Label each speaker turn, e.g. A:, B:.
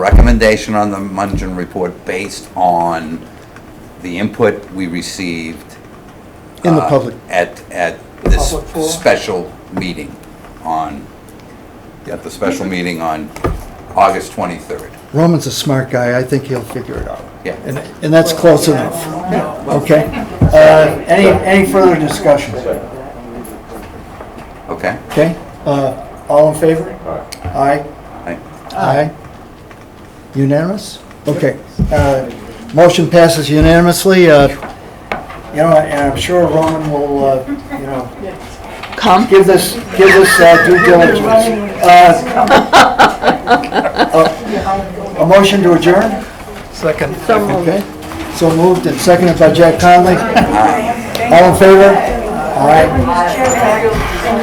A: recommendation on the Mungen report based on the input we received.
B: In the
A: uh,
B: public.
A: At, at
C: The
A: this
C: public forum.
A: special meeting on, at the special meeting on August 23rd.
B: Roman's a smart guy, I think he'll figure it out.
A: Yeah.
B: And, and that's close enough, okay? Uh, Any, any further discussion,
A: Okay?
B: okay? Uh, All in favor? Aye.
A: I-
B: Aye. Unanimous? Okay. Uh, Motion passes unanimously. Uh, You know, and I'm sure Roman will, uh, you know,
D: Come.
B: give this, give this uh, due diligence. Uh, A a motion to adjourn?
C: Second.
D: So moved.
B: Okay, so moved and seconded by Jack Conley. All in favor? All right.